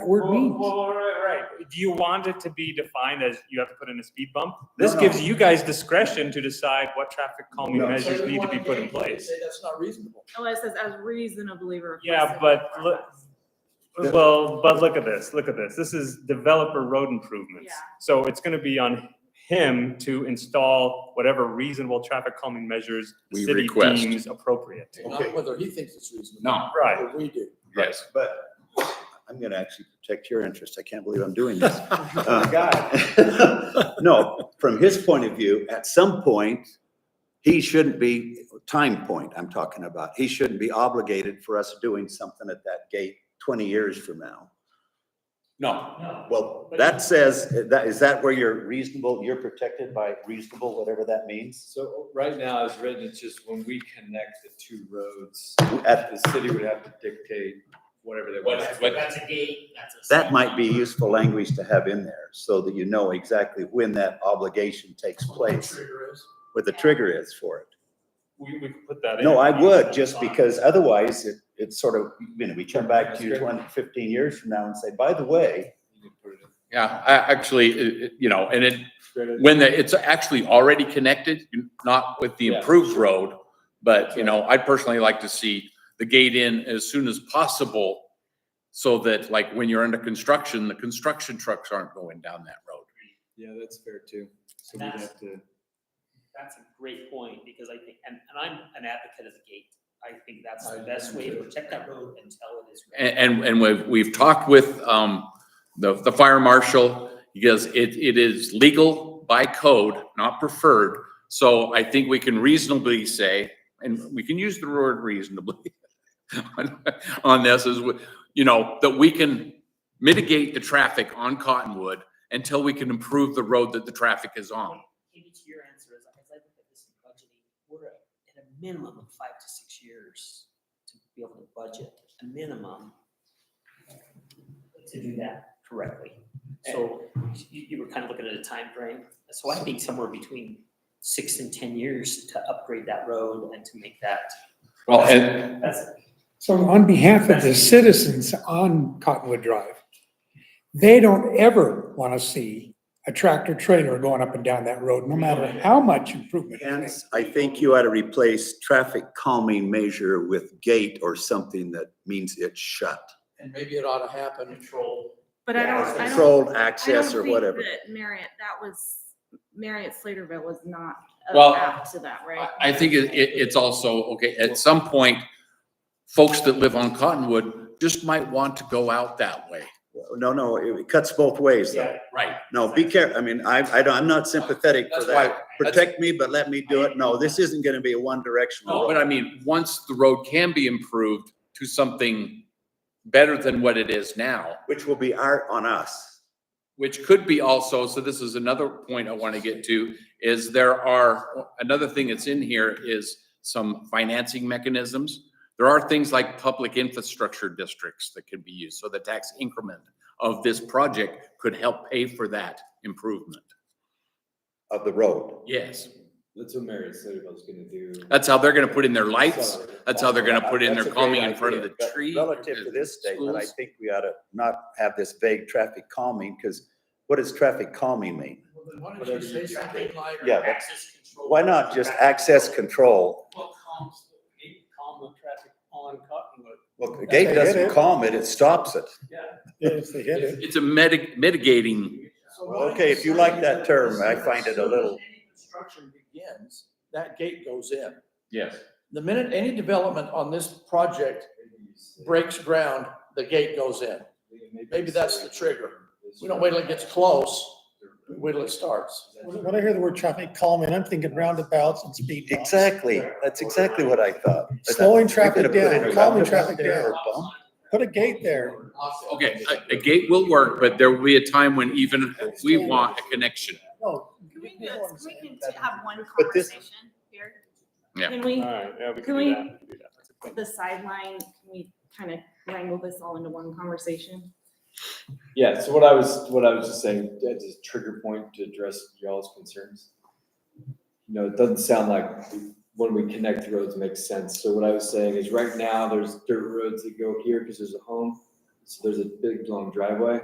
that word Well, means. Well, well, right, right. Do you want it to be defined as you have to put in a speed bump? This no. gives you guys discretion to decide what traffic calming No. measures need to be put in place. Say that's not reasonable. Oh, it says as reasonably requested. Yeah, but look, Yeah. well, but look at this, look at this. This is developer road improvements. Yeah. So it's gonna be on him to install whatever reasonable traffic calming measures the We city request. deems appropriate. Okay. Not whether he thinks it's reasonable. No. Right. Whether we do. Yes. But I'm gonna actually protect your interest. I can't believe I'm doing this. Uh, No, from his point of view, at some point, he shouldn't be, time point I'm talking about, he shouldn't be obligated for us doing something at that gate twenty years from now. No. Well, that says, that, is that where you're reasonable, you're protected by reasonable, whatever that means? So right now, as written, it's just when we connect the two roads, At, the city would have to dictate whatever they want. That's, that's a gate, that's a. that sign. might be useful language to have in there, so that you know exactly when that obligation takes place, Trigger is. what the trigger is for it. We, we could put that in. No, I would, just because otherwise it, it's sort of, you know, we turn back to you 20, 15 years from now and say, by the way, You can put it in Yeah, I actually, it- it- you know, and it, straight- when the- it's actually already connected, not with the Yeah. improved road, but, you know, I personally like to see the gate in as soon as possible so that like when you're under construction, the construction trucks aren't going down that road. Yeah, that's fair too. So we'd That's- have to. That's a great point, because I think, and, and I'm an advocate of the gate. I think that's the I best am way to too. protect that road until it is. ready. And, and, and we've, we've talked with, um, the, the fire marshal, because it, it is legal by code, not preferred. So I think we can reasonably say, and we can use the word reasonably on- on this is, we- you know, that we can mitigate the traffic on Cottonwood until we can improve the road that the traffic is on. Katie, to your answer, is as I look at this in budgeting, we're at at a minimum of five to six years to be able to budget, a minimum to do that correctly. So you, you were kind of looking at a time frame. So I think somewhere between six and ten years to upgrade that road and to make that. Well, and, That's, So on behalf of the citizens on Cottonwood Drive, they don't ever want to see a tractor trailer going up and down that road, no matter how much improvement. it's hence, I think you ought to replace traffic calming measure with gate or something that means it's shut. And maybe it ought to happen. Control. But I don't, I don't, Controlled I don't access or think whatever. that Marriott, that was, Marriott Slaterville was not Well, apt to that, right? I I think it, it, it's also, okay, at some point, folks that live on Cottonwood just might want to go out that way. No, no, it cuts both ways though. Right. No, be careful. I mean, I, I don't, I'm not sympathetic for That's that. why, Protect me, but let me do it. No, this isn't gonna be a one directional. no, but I mean, once the road can be improved to something better than what it is now, Which will be art on us. which could be also, so this is another point I want to get to, is there are, another thing that's in here is some financing mechanisms. There are things like public infrastructure districts that could be used, so the tax increment of this project could help pay for that improvement. of the road. Yes, That's what Mary Slaterville's gonna do. that's how they're gonna put in their lights, Sorry. that's how they're gonna put in That's their a great calming in front of idea, the but tree. Relative to this statement, I schools. think we ought to not have this vague traffic calming, because what does traffic calming mean? Well, then why don't Whatever you you say do. something like, Yeah, but access control. Why not just access control? What calms, it calm the traffic on Cottonwood. Well, the gate doesn't calm it, it stops it. If they hit it. It's a mitig- mitigating, So why don't Okay, if you say like that term, as I soon- find as it a soon as little, any Construction begins, that gate goes in. yes. The minute any development on this project breaks ground, the gate goes in. Maybe that's the trigger. We don't wait till it gets close, we wait till it starts. When I hear the word traffic calming, I'm thinking roundabouts and speed bumps. exactly, that's exactly what I thought. But that- Slowing we're gonna traffic put in down, a calming roundabout traffic there or down. bump? Put a gate there. Okay, a, a gate will work, but there will be a time when even we want a connection. No, Can we, do- can we can t- have one But this- conversation here? Yeah. Can we, Alright, yeah, we Can can we- do that, we can do that. That's a good- the sideline, can we kind of wrangle this all into one conversation? Yeah, so what I was, what I was just saying, that's a trigger point to address y'all's concerns. You know, it doesn't sound like when we connect roads makes sense. So what I was saying is right now, there's dirt roads that go here because there's a home. As So there's a big long driveway.